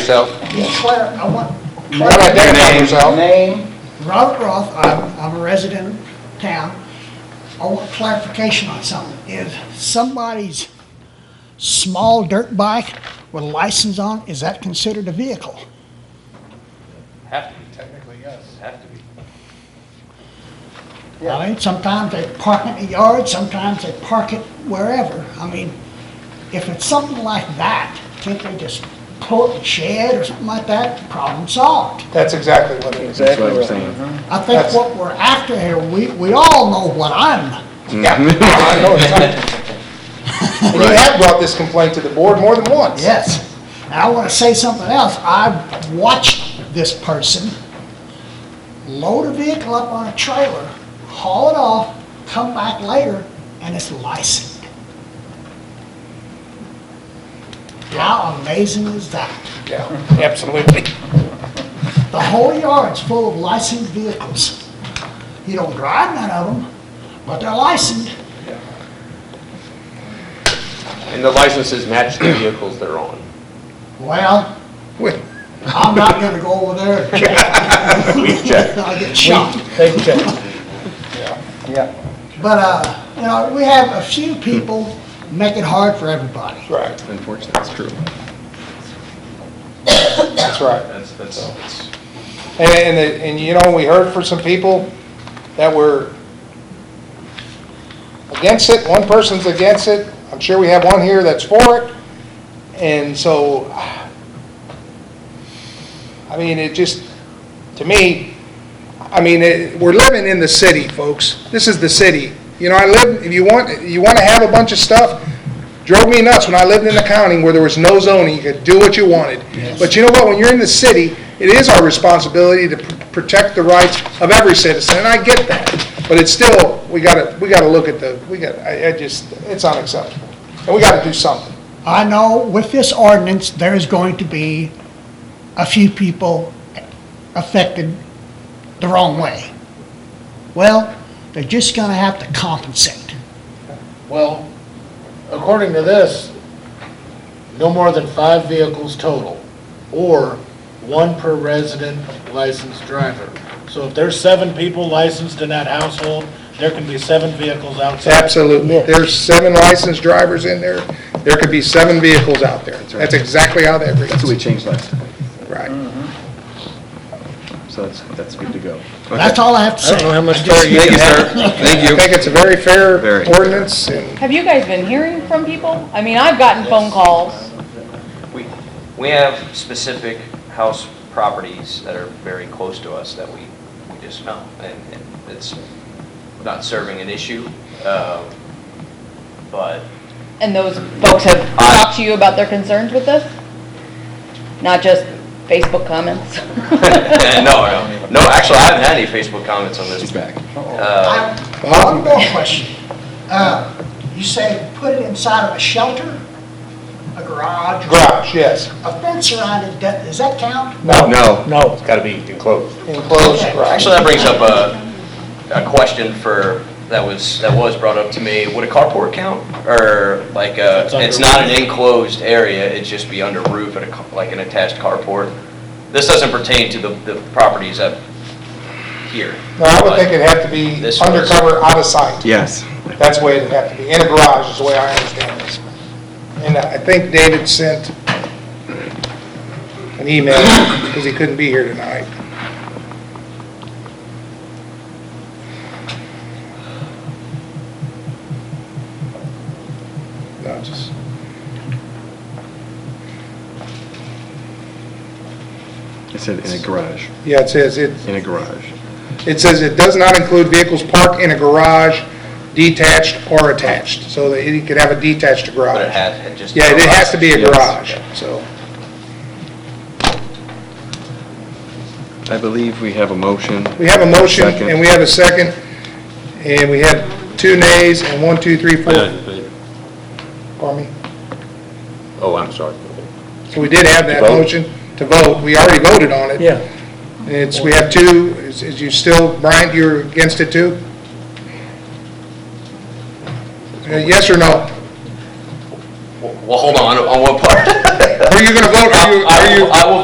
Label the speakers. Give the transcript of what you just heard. Speaker 1: yourself.
Speaker 2: Claire, I want,
Speaker 1: How about
Speaker 2: Claire,
Speaker 1: that? Identify yourself.
Speaker 3: Name,
Speaker 2: Robert Roth, I'm, I'm a resident of town. I want clarification on something. Is somebody's small dirt bike with a license on, is that considered a vehicle?
Speaker 4: Have to be technically, yes. Have to be.
Speaker 2: I mean, sometimes they park it in the yard, sometimes they park it wherever. I mean, if it's something like that, can't they just pull it in the shed or something like that? Problem solved.
Speaker 1: That's exactly what it is.
Speaker 3: exactly
Speaker 5: what I'm
Speaker 3: right.
Speaker 5: saying.
Speaker 3: Mhm.
Speaker 2: I think what we're after here, we, we all know what I'm
Speaker 1: Yeah, I know it's not. And you have brought this complaint to the board more than once.
Speaker 2: Yes. And I want to say something else. I watched this person load a vehicle up on a trailer, haul it off, come back later, and it's licensed. How amazing is that?
Speaker 1: Yeah, absolutely.
Speaker 2: The whole yard's full of licensed vehicles. You don't drive none of them, but they're licensed.
Speaker 6: And the licenses match the vehicles they're on.
Speaker 2: Well, I'm not gonna go over there. We've checked. I'll get shot.
Speaker 3: They check. Yeah.
Speaker 2: But, uh, you know, we have a few people make it hard for everybody.
Speaker 1: Right,
Speaker 5: Unfortunately, that's true.
Speaker 1: that's right.
Speaker 4: That's, that's, that's-
Speaker 1: And, and, the- and you know, we heard from some people that were against it, one person's against it, I'm sure we have one here that's for it, and so, I mean, it just, to me, I mean, it- we're living in the city, folks, this is the city. You know, I live, if you want, you wanna have a bunch of stuff, drove me nuts when I lived in the county where there was no zoning, you could do what you wanted. But you know what, when you're in the city, it is our responsibility to pr- protect the rights of every citizen, and I get that. But it's still, we gotta, we gotta look at the, we gotta, I, I just, it's unacceptable. And we gotta do something.
Speaker 2: I know with this ordinance, there is going to be a few people affected the wrong way. Well, they're just gonna have to compensate.
Speaker 7: Well, according to this, no more than five vehicles total, or one per resident licensed driver. So if there's seven people licensed in that household, there can be seven vehicles outside.
Speaker 1: Absolutely. There's seven licensed drivers in there, there could be seven vehicles out there.
Speaker 5: right.
Speaker 1: That's exactly how that
Speaker 5: That's what we
Speaker 1: reads.
Speaker 5: changed last time,
Speaker 1: Right.
Speaker 5: so that's, that's good to go.
Speaker 2: That's all I have to say.
Speaker 5: Thank you, sir. Thank
Speaker 1: I think it's a very fair
Speaker 5: Very.
Speaker 1: ordinance, and
Speaker 8: Have you guys been hearing from people? I mean, I've gotten phone calls.
Speaker 9: We, we have specific house properties that are very close to us that we, we just know, and and it's not serving an issue, um, but
Speaker 8: And those folks have talked to you about their concerns with this? Not just Facebook comments?
Speaker 9: No, no, no, actually, I haven't had any Facebook comments on this.
Speaker 5: She's back.
Speaker 9: Uh,
Speaker 2: I- One more question. Uh, you say put it inside of a shelter, a garage?
Speaker 1: garage, yes.
Speaker 2: A fence around it, does does that count?
Speaker 5: No.
Speaker 4: no, it's gotta be enclosed.
Speaker 1: Enclosed garage.
Speaker 9: Actually, that brings up a, a question for, that was, that was brought up to me, would a carport count? Or like, uh,
Speaker 7: It's under
Speaker 9: it's not an enclosed area, it'd just be under roof at a, ca- like an attached carport? This doesn't pertain to the, the properties up here.
Speaker 1: No, I would think it'd have to be
Speaker 9: This was-
Speaker 1: undercover, out of sight.
Speaker 5: Yes.
Speaker 1: That's the way it'd have to be. In a garage is the way I understand this. And I think David sent an email because he couldn't be here tonight. No, just.
Speaker 5: It said in a garage,
Speaker 1: Yeah, it says it,
Speaker 5: in a garage.
Speaker 1: it says it does not include vehicles parked in a garage, detached or attached. So that you could have a detached garage.
Speaker 9: But it had, had just.
Speaker 1: Yeah, it has to be a
Speaker 5: Yes.
Speaker 1: garage, so.
Speaker 5: I believe we have a motion.
Speaker 1: We have a motion,
Speaker 5: Second.
Speaker 1: and we have a second, and we have two nays, and one, two, three, four. Pardon me?
Speaker 6: Oh, I'm sorry.
Speaker 1: So we did have that
Speaker 6: To vote.
Speaker 1: motion to vote, we already voted on it.
Speaker 3: Yeah.
Speaker 1: It's, we have two, is is you still, Brian, you're against it too? Uh, Yes or no?
Speaker 4: Well,
Speaker 1: Well, hold on, on what part?
Speaker 9: Are you gonna vote, are you, are you?
Speaker 1: I will